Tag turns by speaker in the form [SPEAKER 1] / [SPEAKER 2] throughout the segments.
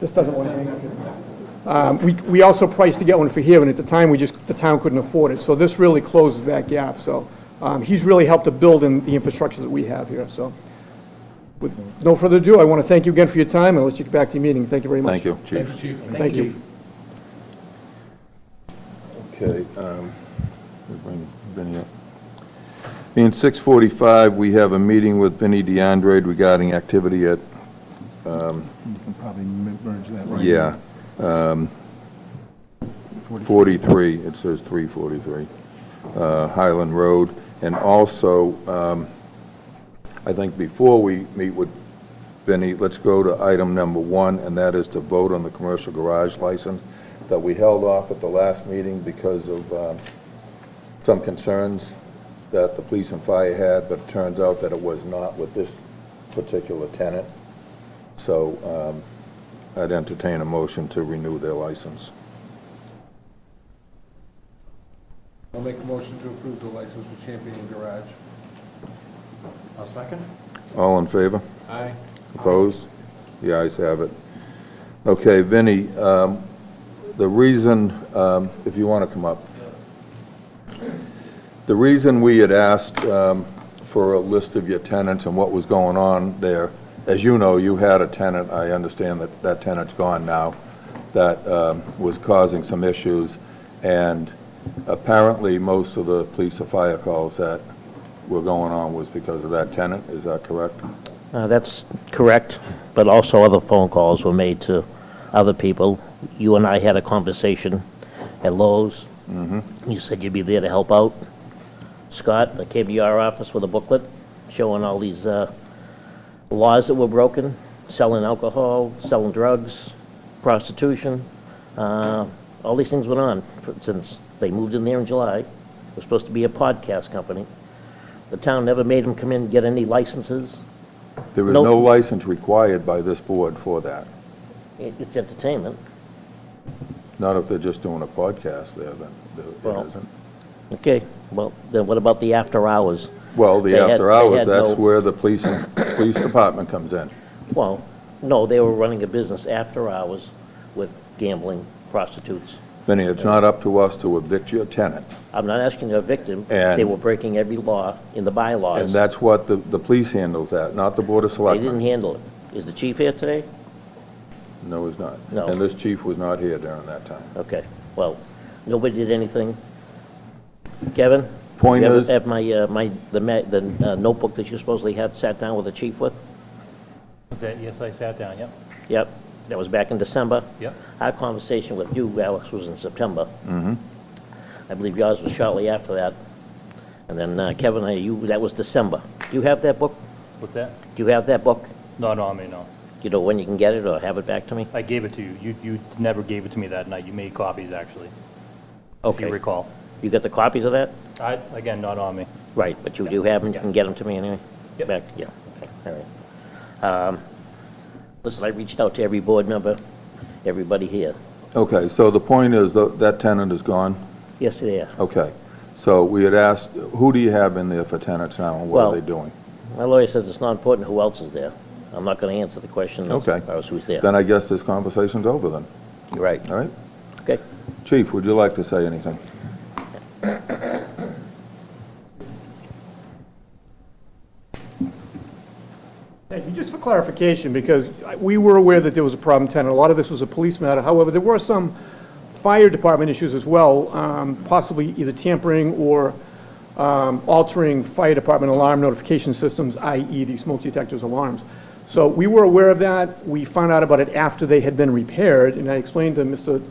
[SPEAKER 1] This doesn't want to hang. Um, We, we also priced to get one for here, and at the time, we just, the town couldn't afford it. So this really closes that gap, so um, he's really helped to build in the infrastructure that we have here, so. With no further ado, I want to thank you again for your time, and let you get back to your meeting. Thank you very much.
[SPEAKER 2] Thank you, Chief.
[SPEAKER 1] Thank you.
[SPEAKER 2] Okay, um, we bring Vinnie up. Being 6:45, we have a meeting with Vinnie DeAndre regarding activity at,
[SPEAKER 3] You can probably m- merge that right.
[SPEAKER 2] yeah, um, 43, it says 343, uh, Highland Road. And also, um, I think before we meet with Vinnie, let's go to item number one, and that is to vote on the commercial garage license that we held off at the last meeting because of um, some concerns that the police and fire had, but it turns out that it was not with this particular tenant. So um, I'd entertain a motion to renew their license.
[SPEAKER 4] I'll make a motion to approve the license for Champion Garage. I'll second.
[SPEAKER 2] All in favor?
[SPEAKER 4] Aye.
[SPEAKER 2] Opposed? The ayes have it. Okay, Vinnie, um, the reason, um, if you want to come up. The reason we had asked um, for a list of your tenants and what was going on there, as you know, you had a tenant, I understand that that tenant's gone now, that um, was causing some issues, and apparently, most of the police or fire calls that were going on was because of that tenant, is that correct?
[SPEAKER 5] Uh, That's correct, but also other phone calls were made to other people. You and I had a conversation at Lowe's. You said you'd be there to help out. Scott, I came to your office with a booklet showing all these uh, laws that were broken, selling alcohol, selling drugs, prostitution. uh, All these things went on since they moved in there in July. It was supposed to be a podcast company. The town never made them come in and get any licenses.
[SPEAKER 2] There is
[SPEAKER 5] Nope.
[SPEAKER 2] no license required by this board for that.
[SPEAKER 5] It- It's entertainment.
[SPEAKER 2] Not if they're just doing a podcast there, then there-
[SPEAKER 5] Well-
[SPEAKER 2] it isn't.
[SPEAKER 5] Okay, well, then what about the after hours?
[SPEAKER 2] Well, the
[SPEAKER 5] They had-
[SPEAKER 2] after
[SPEAKER 5] they
[SPEAKER 2] hours,
[SPEAKER 5] had
[SPEAKER 2] that's
[SPEAKER 5] no-
[SPEAKER 2] where the police, and- police department comes in.
[SPEAKER 5] Well, no, they were running a business after hours with gambling, prostitutes.
[SPEAKER 2] Vinnie, it's not up to us to evict your tenant.
[SPEAKER 5] I'm not asking a victim. They
[SPEAKER 2] And-
[SPEAKER 5] were breaking every law in the bylaws.
[SPEAKER 2] And that's what the, the police handles that, not the board of
[SPEAKER 5] They didn't
[SPEAKER 2] selectmen.
[SPEAKER 5] handle it. Is the chief here today?
[SPEAKER 2] No, he's not.
[SPEAKER 5] No.
[SPEAKER 2] And this chief was not here during that time.
[SPEAKER 5] Okay, well, nobody did anything. Kevin?
[SPEAKER 2] Point
[SPEAKER 5] you ever
[SPEAKER 2] is-
[SPEAKER 5] Have my, uh, my, the ma- the uh, notebook that you supposedly had sat down with the chief with?
[SPEAKER 6] Was that, yes, I sat down, yep,
[SPEAKER 5] Yep, that was back in December.
[SPEAKER 6] yep.
[SPEAKER 5] Our conversation with you, Alex, was in September.
[SPEAKER 2] Mm-hmm.
[SPEAKER 5] I believe yours was shortly after that. And then uh, Kevin, uh, you, that was December. Do you have that book?
[SPEAKER 6] What's that?
[SPEAKER 5] Do you have that book?
[SPEAKER 6] Not on me, no.
[SPEAKER 5] Do You know when you can get it or have it back to me?
[SPEAKER 6] I gave it to you. You, you never gave it to me that night. You made copies, actually, if you
[SPEAKER 5] Okay.
[SPEAKER 6] recall.
[SPEAKER 5] You got the copies of that?
[SPEAKER 6] I, again, not on me.
[SPEAKER 5] Right, but you do have them, you can get them to me anyway?
[SPEAKER 6] Yep.
[SPEAKER 5] Back, yeah, okay, all right. Um, Listen, I reached out to every board member, everybody here.
[SPEAKER 2] Okay, so the point is, tho- that tenant is gone?
[SPEAKER 5] Yes, they are.
[SPEAKER 2] Okay. So we had asked, who do you have in there for tenants now, and what are
[SPEAKER 5] Well-
[SPEAKER 2] they doing?
[SPEAKER 5] My lawyer says it's not important who else is there. I'm not going to answer the question as
[SPEAKER 2] Okay.
[SPEAKER 5] far as who's there.
[SPEAKER 2] Then I guess this conversation's over then,
[SPEAKER 5] You're Right,
[SPEAKER 2] all right?
[SPEAKER 5] okay.
[SPEAKER 2] Chief, would you like to say anything?
[SPEAKER 1] Thank you. Just for clarification, because I- we were aware that there was a problem tenant. A lot of this was a police matter. However, there were some fire department issues as well, um, possibly either tampering or um, altering fire department alarm notification systems, i.e. the smoke detectors alarms. So we were aware of that. We found out about it after they had been repaired, and I explained to Mr.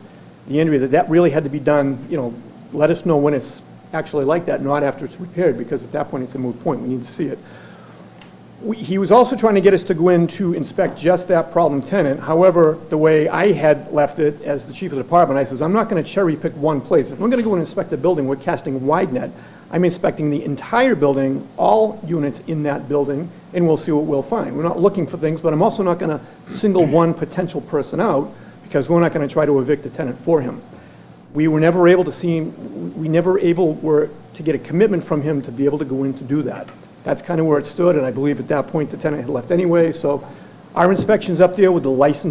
[SPEAKER 1] DeAndrea that that really had to be done, you know, let us know when it's actually like that, not after it's repaired, because at that point, it's a moot point. We need to see it. We- He was also trying to get us to go in to inspect just that problem tenant. However, the way I had left it as the chief of the department, I says, I'm not going to cherry pick one place. If I'm going to go and inspect the building, we're casting wide net. I'm inspecting the entire building, all units in that building, and we'll see what we'll find. We're not looking for things, but I'm also not going to single one potential person out because we're not going to try to evict a tenant for him. We were never able to see, him. we never able were to get a commitment from him to be able to go in to do that. That's kind of where it stood, and I believe at that point the tenant had left anyway, so our inspection's up there with the license